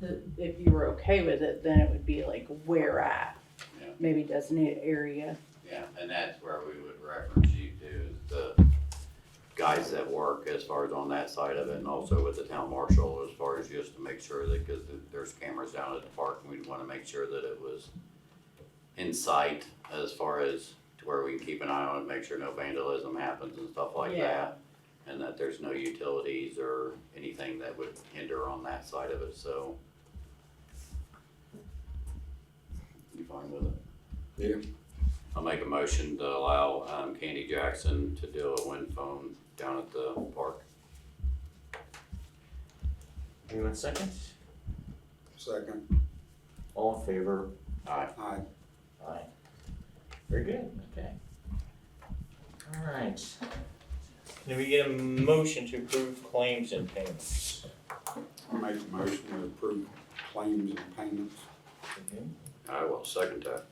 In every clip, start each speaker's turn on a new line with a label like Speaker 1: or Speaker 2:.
Speaker 1: the, if you were okay with it, then it would be like where at.
Speaker 2: Yeah.
Speaker 1: Maybe designate area.
Speaker 2: Yeah, and that's where we would reference you to is the guys that work as far as on that side of it and also with the town marshal as far as just to make sure that, cause th- there's cameras down at the park and we'd wanna make sure that it was in sight as far as to where we can keep an eye on it, make sure no vandalism happens and stuff like
Speaker 1: Yeah.
Speaker 2: that. And that there's no utilities or anything that would hinder on that side of it, so. You fine with it? I'll make a motion to allow um, Candy Jackson to do a wind phone down at the park.
Speaker 3: Anyone second?
Speaker 4: Second,
Speaker 3: All in favor?
Speaker 2: Aye.
Speaker 4: aye.
Speaker 3: Aye. Very good, okay. Alright. Can we get a motion to approve claims and payments?
Speaker 4: I make a motion to approve claims and payments.
Speaker 2: I will second that.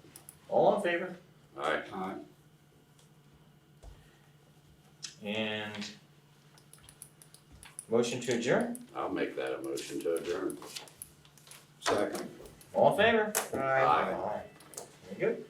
Speaker 3: All in favor?
Speaker 2: Aye.
Speaker 4: Aye.
Speaker 3: And motion to adjourn?
Speaker 2: I'll make that a motion to adjourn.
Speaker 4: Second.
Speaker 3: All in favor?
Speaker 2: Aye.
Speaker 3: Very good.